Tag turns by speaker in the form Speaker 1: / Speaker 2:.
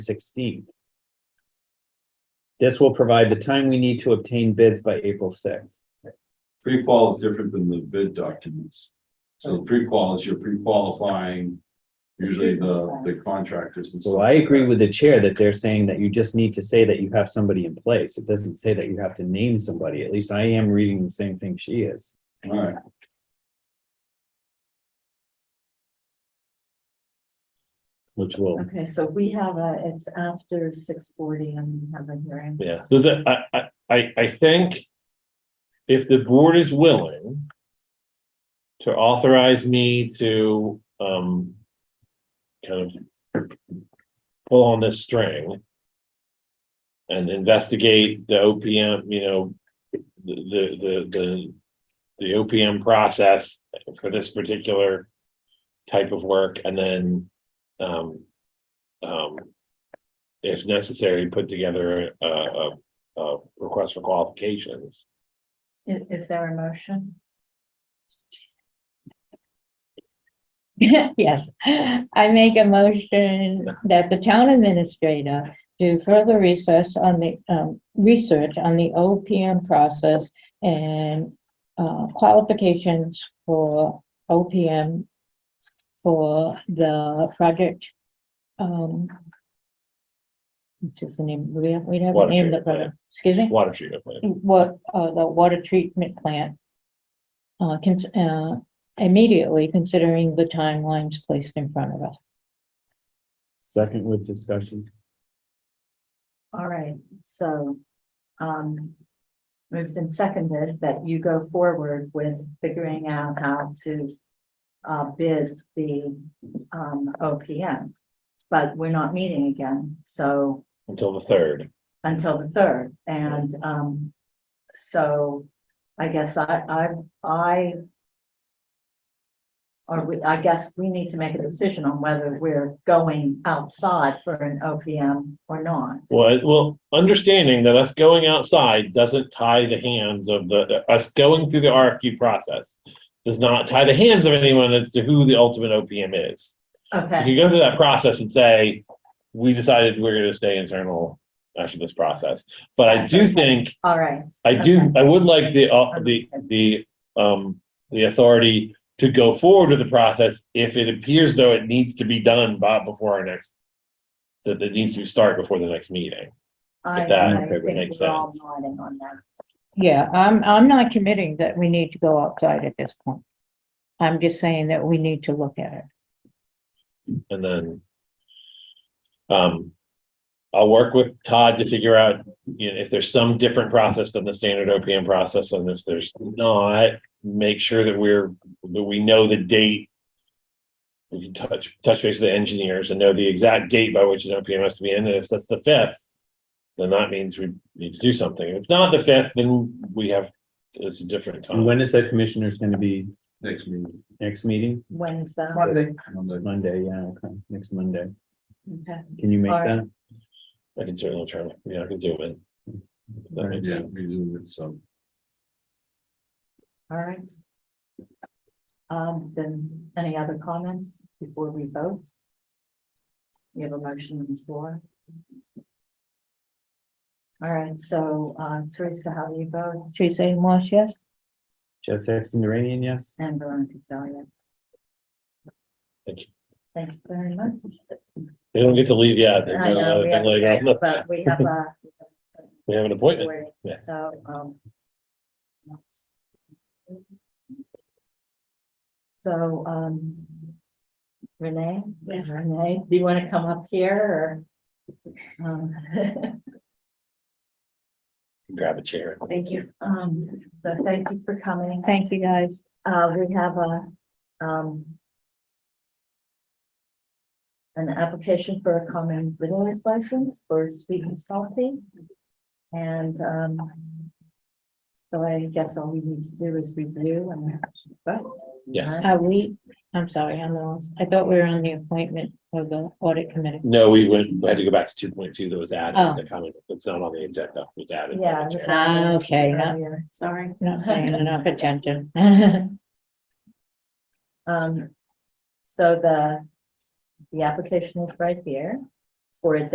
Speaker 1: sixteenth. This will provide the time we need to obtain bids by April sixth.
Speaker 2: Pre-qual is different than the bid documents. So the pre-qual is you're pre-qualifying usually the, the contractors. and stuff
Speaker 1: So I
Speaker 2: like
Speaker 1: agree
Speaker 2: that.
Speaker 1: with the chair that they're saying that you just need to say that you have somebody in place. It doesn't say that you have to name somebody. At least I am reading the same thing she is.
Speaker 2: All right.
Speaker 1: Which will,
Speaker 3: Okay, so we have a, it's after six forty and we have a hearing.
Speaker 4: Yeah, so that, I, I, I, I think if the board is willing to authorize me to, um, kind of pull on this string and investigate the OPM, you know, the, the, the, the, the OPM process for this particular type of work and then, um, um, if necessary, put together a, a, a request for qualifications.
Speaker 3: I- Is, there a motion?
Speaker 5: Yes, I make a motion that the town administrator do further research on the, um, research on the OPM process and, uh, qualifications for OPM for the project, um, what's his name, we have, we have a
Speaker 4: Water
Speaker 5: name, the
Speaker 4: treatment plant.
Speaker 5: project, excuse me?
Speaker 4: Water treatment plant.
Speaker 5: what, uh, the water treatment plant. Uh, cons- uh, immediately considering the timelines placed in front of us.
Speaker 1: second with discussion.
Speaker 3: All right, so, um, moved and seconded that you go forward with figuring out how to uh, bid the, um, OPM. But we're not meeting again, so
Speaker 4: Until the third.
Speaker 3: until the third, and, um, so I guess I, I, I or we, I guess we need to make a decision on whether we're going outside for an OPM or not.
Speaker 4: Well, well, understanding that us going outside doesn't tie the hands of the, us going through the RFQ process does not tie the hands of anyone as to who the ultimate OPM is. You
Speaker 3: Okay,
Speaker 4: can go through that process and say, we decided we're gonna stay internal after this process. But I do think
Speaker 3: all right.
Speaker 4: I do,
Speaker 3: Okay.
Speaker 4: I would like the, uh, the, the, um, the authority to go forward with the process if it appears though it needs to be done by, before our next, that it needs to start before the next meeting.
Speaker 3: I,
Speaker 4: that
Speaker 3: I think
Speaker 4: makes
Speaker 3: we're all
Speaker 4: sense.
Speaker 3: nodding on that.
Speaker 5: Yeah, I'm, I'm not committing that we need to go outside at this point. I'm just saying that we need to look at it.
Speaker 4: And then, um, I'll work with Todd to figure out, you know, if there's some different process than the standard OPM process, and if there's not, make sure that we're, that we know the date. We can touch, touch base with the engineers and know the exact date by which an OPM has to be in, and if that's the fifth, then that means we need to do something. If it's not the fifth, then we have, it's a different
Speaker 1: And
Speaker 4: time.
Speaker 1: when is the commissioners going to be
Speaker 2: Next meeting.
Speaker 1: next meeting?
Speaker 3: When's the,
Speaker 2: Monday.
Speaker 1: Monday, yeah, okay, next Monday.
Speaker 3: okay,
Speaker 1: Can you make
Speaker 3: Alright.
Speaker 1: that?
Speaker 4: I can certainly try, yeah, I can do it. That makes
Speaker 2: Yeah,
Speaker 4: sense.
Speaker 2: we do it, so.
Speaker 3: all right. Um, then, any other comments before we vote? We have a motion on the floor. All right, so, uh, Teresa, how do you vote?
Speaker 5: Suzanne Marsh, yes?
Speaker 1: Jess Exon Duranian, yes?
Speaker 3: And Veronica Dahlia.
Speaker 4: Thank you.
Speaker 3: Thank you very much.
Speaker 4: They don't get to leave yet. uh, They're
Speaker 3: I know,
Speaker 4: gonna-
Speaker 3: we
Speaker 4: they're
Speaker 3: have,
Speaker 4: later
Speaker 3: to
Speaker 4: on.
Speaker 3: go, but we have a.
Speaker 4: We have an appointment. yeah.
Speaker 3: So, um. So, um. Renee?
Speaker 5: Yes.
Speaker 3: Renee, do you want to come up here or? um,
Speaker 4: Grab a chair.
Speaker 3: Thank you. Um, so thank you for coming.
Speaker 5: Thank you, guys.
Speaker 3: Uh, we have a, um. An application for a common business license for sweet and salty. And, um. So I guess all we need to do is review and vote.
Speaker 4: Yes.
Speaker 5: Are we, I'm sorry, I'm lost. I thought we were on the appointment of the audit committee.
Speaker 4: No, we went, we had to go back to two point two that was added, in
Speaker 5: Oh.
Speaker 4: the comment, it's not on the agenda, it was added. by the
Speaker 3: Yeah,
Speaker 4: chair.
Speaker 3: just-
Speaker 5: Ah, Okay, not,
Speaker 3: Earlier, Sorry.
Speaker 5: not paying enough attention. Yes,
Speaker 3: Um, so the, the application is right here for a